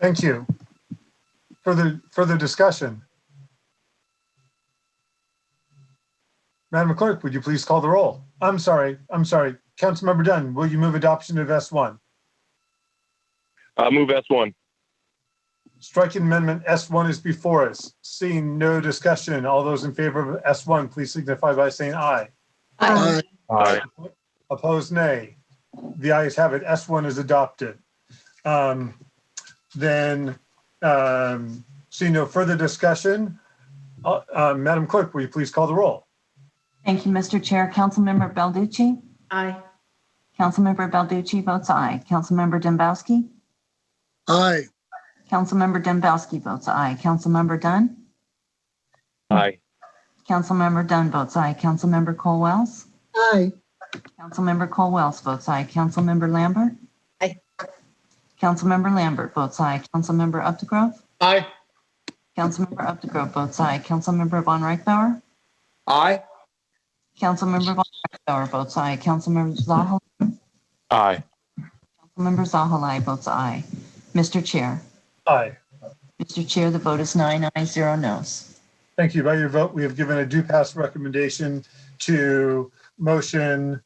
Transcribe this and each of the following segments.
Thank you. Further, further discussion? Madam Clerk, would you please call the roll? I'm sorry, I'm sorry. Councilmember Dunn, will you move adoption of S1? Uh, move S1. Striking amendment S1 is before us. Seeing no discussion, all those in favor of S1, please signify by saying aye. Uh, Aye. Aye. Opposed, nay. The ayes have it. S1 is adopted. Um, Then, um, seeing no further discussion, uh, uh, Madam Clerk, will you please call the roll? Thank you, Mr. Chair. Councilmember Belducci? Aye. Councilmember Belducci votes aye. Councilmember Dembowski? Aye. Councilmember Dembowski votes aye. Councilmember Dunn? Aye. Councilmember Dunn votes aye. Councilmember Cole Wells? Aye. Councilmember Cole Wells votes aye. Councilmember Lambert? Aye. Councilmember Lambert votes aye. Councilmember Updegrove? Aye. Councilmember Updegrove votes aye. Councilmember Von Reichbauer? Aye. Councilmember Von Reichbauer votes aye. Councilmember Zahalai? Aye. Councilmember Zahalai votes aye. Mr. Chair? Aye. Mr. Chair, the vote is nine ayes, zero nos. Thank you. By your vote, we have given a due pass recommendation to motion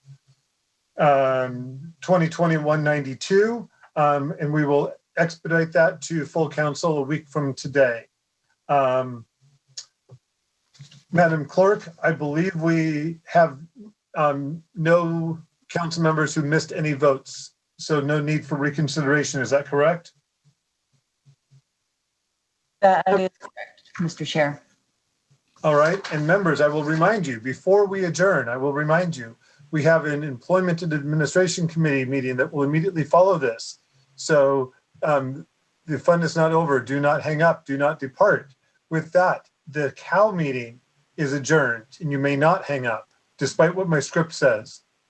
um, 2020-192, um, and we will expedite that to full council a week from today. Um, Madam Clerk, I believe we have um, no council members who missed any votes, so no need for reconsideration. Is that correct? That is correct. Mr. Chair. All right, and members, I will remind you, before we adjourn, I will remind you, we have an Employment and Administration Committee meeting that will immediately follow this. So um, the fun is not over. Do not hang up. Do not depart. With that, the COW meeting is adjourned, and you may not hang up, despite what my script says.